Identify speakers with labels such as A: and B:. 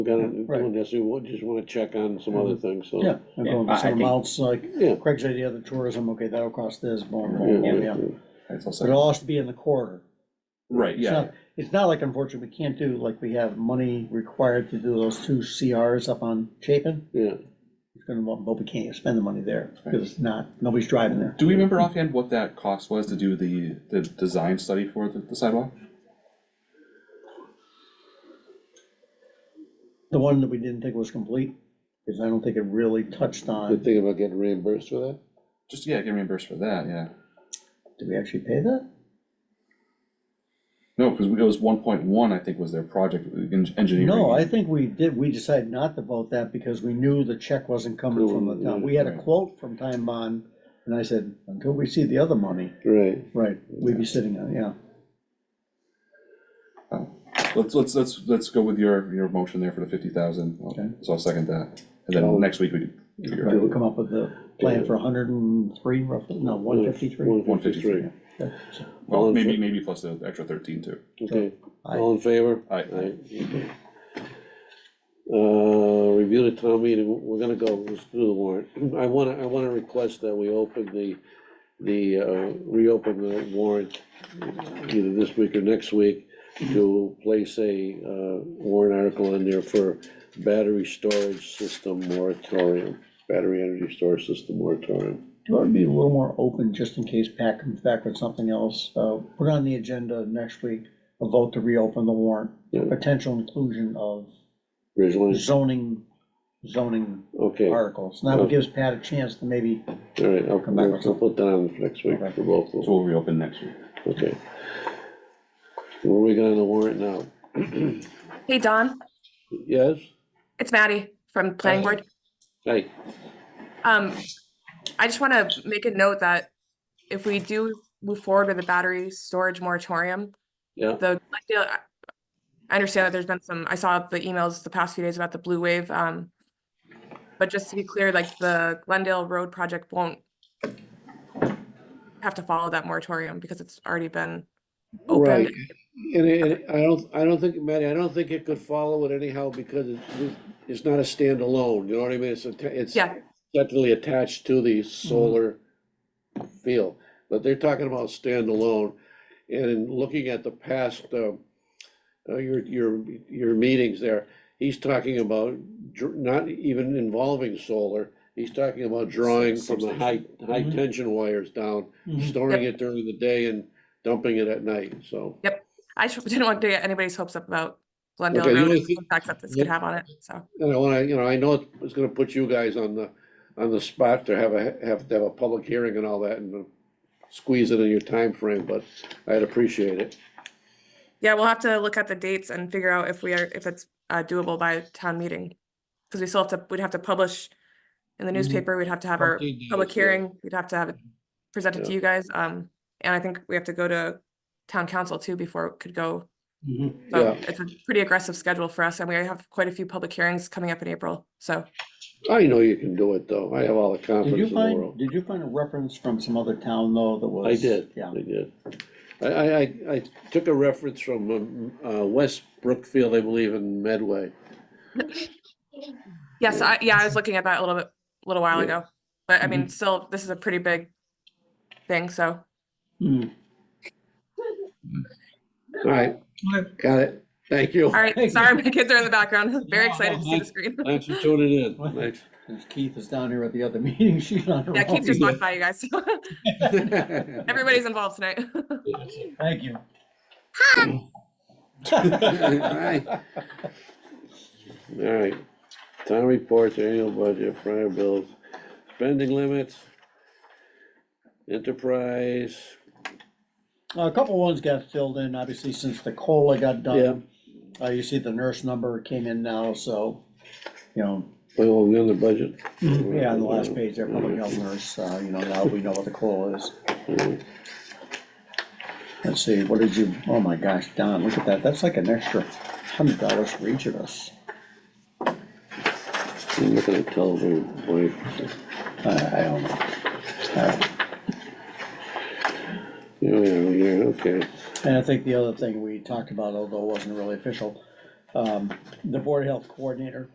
A: We gotta, doing
B: Right. Mm-hmm.
A: this, we wa- just wanna check on some other things, so.
B: Yeah, I'm going
C: I-
B: with
C: I
B: some
C: think-
B: amounts,
A: Yeah.
B: like Craig's idea, the tourism, okay, that'll cost this, blah, blah,
A: Yeah,
B: blah, yeah.
A: yeah,
C: That's also-
B: But it'll also be in the quarter.
C: Right,
B: It's
C: yeah,
B: not- It's not like unfortunately, we can't do, like, we have money required to do those two CRs up on Chapin.
A: yeah.
B: It's gonna, but we can't spend the money there, because it's not, nobody's driving there.
C: do we remember offhand what that cost was to do the, the design study for the the sidewalk?
B: The one that we didn't think was complete, because I don't think it really touched
A: The
B: on,
A: thing about getting reimbursed for that?
C: Just, yeah, get reimbursed for that, yeah.
B: did we actually pay that?
C: No, because it was one point one, I think, was their project en- engineering.
B: No, I think we did, we decided not to vote that because we knew the check wasn't coming from the town. We had a
C: Right.
B: quote from Time Bond, and I said, until we see the other money,
A: Right,
B: right, we'd be sitting on, it, yeah.
C: Let's, let's, let's, let's go with your, your motion there for the fifty thousand,
B: Okay.
C: so I'll second that, and then next week we can figure
B: Right,
C: out.
B: we'll come up with the plan for hundred and three roughly, no, one fifty-three.
A: one fifty-three, all
C: Well,
A: in
C: maybe,
A: fa-
C: maybe plus the extra thirteen too.
A: okay,
B: Aye.
A: all in favor?
C: Aye.
A: okay. Uh, review the town meeting, we're gonna go, let's do the warrant, I wanna, I wanna request that we open the, the, uh, reopen the warrant either this week or next week, to place a, uh, warrant article in there for battery storage system moratorium, battery energy storage system moratorium.
B: Do you want to be a little more open, just in case Pat comes back with something else? Uh, Put on the agenda next week, a vote to reopen the warrant,
A: Yeah.
B: potential inclusion of
A: Ridgeline,
B: zoning, zoning
A: okay, all
B: articles. Now it gives Pat a chance to maybe,
A: right, I'll,
B: Come back
A: we'll
B: with
A: we'll put that on for next week for both of them.
C: So we'll reopen next week.
A: Okay. Where are we going on the warrant now?
D: Hey, Don,
A: Yes?
D: it's Maddie from Planning Board.
A: Hey,
D: Um, I just want to make a note that if we do move forward with the battery storage moratorium,
A: yeah,
D: the, I feel- I- I understand that there's been some, I saw the emails the past few days about the blue wave. Um, but just to be clear, like the Glendale Road project won't have to follow that moratorium because it's already been
A: right.
D: opened.
A: And it- and it- I don't, I don't think, Matty, I don't think it could follow it anyhow because it's, it's not a standalone, you know what I mean? It's, atta- it's
D: Yeah.
A: technically attached to the solar field, but they're talking about standalone. And in looking at the past, um, uh, your, your, your meetings there, he's talking about dr- not even involving solar. He's talking about drawing from the high, high
B: Mhm.
A: tension wires down,
D: Mm-hmm.
A: storing it during the day and dumping it at night, so.
D: I just didn't want to get anybody's hopes up about Glendale
A: Okay, the
D: Road,
A: only
D: and the
A: thing-
D: impacts that this
A: yeah.
D: could have on it, so.
A: And I wanna, you know, I know it's gonna put you guys on the, on the spot to have a, have to have a public hearing and all that and squeeze it in your time frame, but I'd appreciate it.
D: Yeah, we'll have to look at the dates and figure out if we are, if it's uh, doable by town meeting. Because we still have to, we'd have to publish in the newspaper, we'd have to have our
A: 14 days,
D: public
A: Mm-hmm. yeah.
D: hearing, we'd have to have it presented to
A: Yeah.
D: you guys. Um, and I think we have to go to town council too before it could go. So
A: Yeah.
D: it's a pretty aggressive schedule for us and we have quite a few public hearings coming up in April, so.
A: I know you can do it, though. I have all the
B: Did you
A: confidence in the
B: find,
A: world.
B: did you find a reference from some other town though that was?
A: I did,
B: Yeah.
A: I did. I, I, I, I took a reference from, um, uh, West Brookfield, I believe, in Medway.
D: Yes, I, yeah, I was looking at that a little bit, a little while
A: Yeah. Mm-hmm.
D: ago, but I mean, still, this is a pretty big thing, so.
B: Hmm.
A: All right, got it. Thank you.
D: All
B: Hey.
D: right, sorry, my kids are in the background. Very
B: No,
D: excited to see
B: I-
D: the screen.
A: Thanks for tuning in. Thanks.
B: Since Keith is down here at the other meeting, she's on her own.
D: Yeah, Keith just walked by you guys. Everybody's involved tonight.
B: Thank you.
A: Hi. All right, town reports, annual budget, prior bills, spending limits, enterprise,
B: A couple ones got filled in, obviously, since the COLA got done. Uh, you see the nurse number came in now, so, you know,
A: oh, we on the budget?
B: Mm-hmm. yeah, on the last page, there, public health nurse, uh, you know, now we know what the COLA is. Let's see, what did you, oh my gosh, Don, look at that, that's like an extra hundred dollars for each of us.
A: I'm looking at television, boy.
B: I, I don't know. All right.
A: Yeah, yeah, yeah, okay, Oh,
B: And I think the other thing we talked about, although it wasn't really official, um, the Board of Health Coordinator.